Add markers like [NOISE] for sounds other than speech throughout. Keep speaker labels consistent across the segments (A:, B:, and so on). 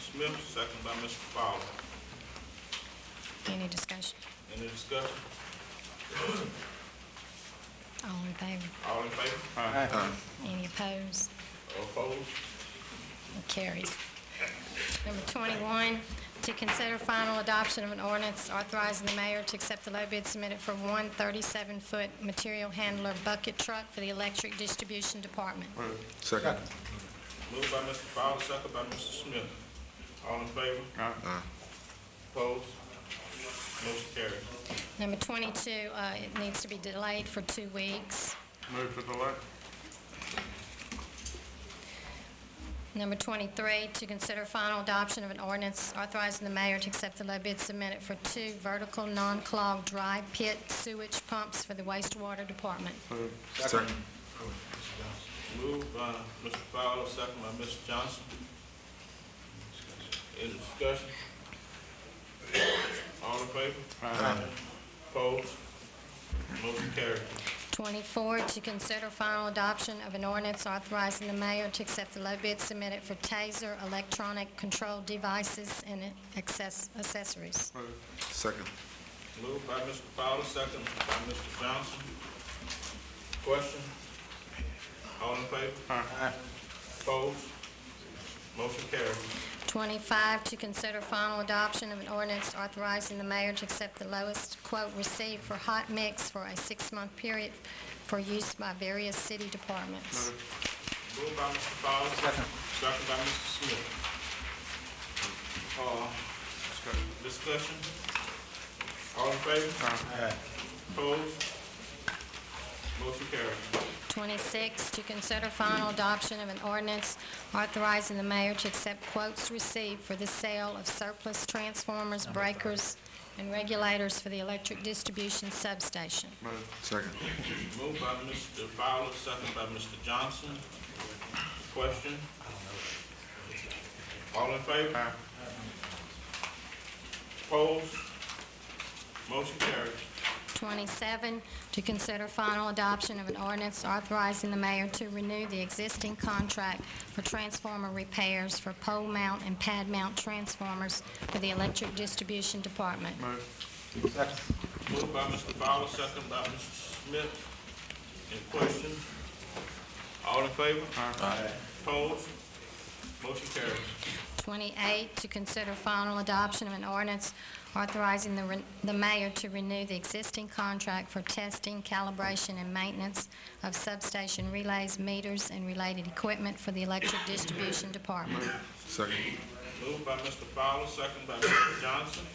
A: Smith, second by Mr. Fowler.
B: Any discussion?
A: Any discussion?
B: All in favor?
A: All in favor?
B: Any opposed?
A: Opposed?
B: It Carries. Number 21, to consider final adoption of an ordinance authorizing the mayor to accept the low bid submitted for one 37-foot material handler bucket truck for the electric distribution department.
C: Second.
A: Moved by Mr. Fowler, second by Mr. Smith. All in favor?
C: Aye.
A: Opposed? Motion carries.
B: Number 22, uh, it needs to be delayed for two weeks.
D: Move to delay.
B: Number 23, to consider final adoption of an ordinance authorizing the mayor to accept the low bid submitted for two vertical non-clog dry pit sewage pumps for the wastewater department.
C: Second.
A: Moved by Mr. Fowler, second by Mr. Johnson. Any discussion? All in favor? Aye. Opposed? Motion carries.
B: 24, to consider final adoption of an ordinance authorizing the mayor to accept the low bid submitted for TASER electronic control devices and access- accessories.
C: Second.
A: Moved by Mr. Fowler, second by Mr. Johnson. Question? All in favor? Aye. Opposed? Motion carries.
B: 25, to consider final adoption of an ordinance authorizing the mayor to accept the lowest quote received for hot mix for a six-month period for use by various city departments.
A: Moved by Mr. Fowler, second second by Mr. Smith. Uh, Discussion? All in favor? Aye. Opposed? Motion carries.
B: 26, to consider final adoption of an ordinance authorizing the mayor to accept quotes received for the sale of surplus transformers, breakers, and regulators for the electric distribution substation.
C: Second.
A: Moved by Mr. Fowler, second by Mr. Johnson. Question? All in favor? Opposed? Motion carries.
B: 27, to consider final adoption of an ordinance authorizing the mayor to renew the existing contract for transformer repairs for pole mount and pad mount transformers for the electric distribution department.
A: Moved by Mr. Fowler, second by Mr. Smith. Any questions? All in favor? Aye. Opposed? Motion carries.
B: 28, to consider final adoption of an ordinance authorizing the re- the mayor to renew the existing contract for testing, calibration, and maintenance of substation relays, meters, and related equipment for the electric distribution department.
C: Second.
A: Moved by Mr. Fowler, second by Mr. Johnson.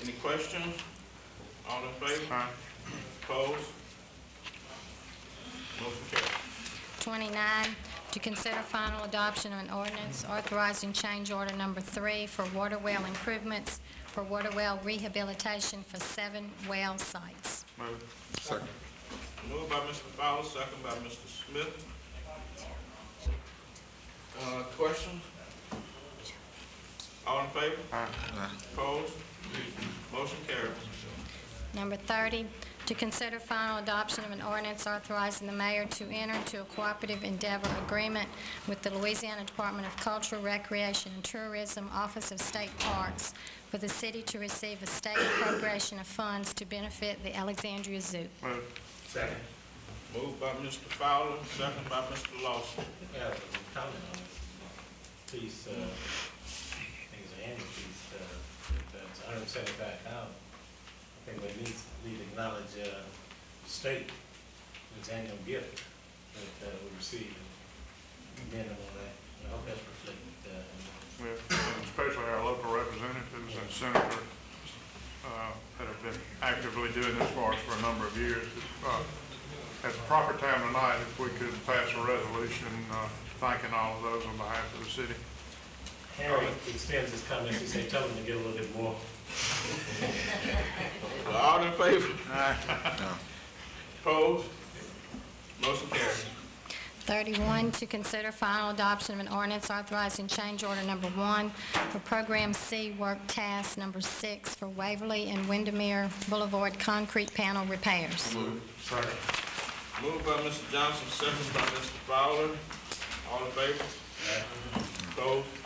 A: Any questions? All in favor? Aye. Opposed? Motion carries.
B: 29, to consider final adoption of an ordinance authorizing change order number three for water well improvements for water well rehabilitation for seven well sites.
C: Second.
A: Moved by Mr. Fowler, second by Mr. Smith. Uh, questions? All in favor?
C: Aye.
A: Opposed? Motion carries.
B: Number 30, to consider final adoption of an ordinance authorizing the mayor to enter into a cooperative endeavor agreement with the Louisiana Department of Culture, Recreation, and Tourism, Office of State Parks, for the city to receive a state appropriation of funds to benefit the Alexandria Zoo.
A: Moved by Mr. Fowler, second by Mr. Lawson.
E: Yeah, but the comment on the piece, uh, I think it's an annual piece, uh, that's hundred and seventy-five thousand. I think we need, need to acknowledge, uh, the state, its annual gift that, uh, we received, and commend them on that, and I hope that's reflected, uh, in the
D: Yeah, and especially our local representatives and senators uh, that have been actively doing this for us for a number of years. Uh, At the proper time tonight, if we could pass a resolution uh, thanking all of those on behalf of the city.
E: Harry extends his comments, he said, tell them to get a little bit more.
A: All in favor? [LAUGHS]
C: Aye.
A: Opposed? Motion carries.
B: 31, to consider final adoption of an ordinance authorizing change order number one for Program C Work Task Number Six for Waverly and Windermere Boulevard Concrete Panel Repairs.
A: Moved by Mr. Johnson, second by Mr. Fowler. All in favor? Opposed?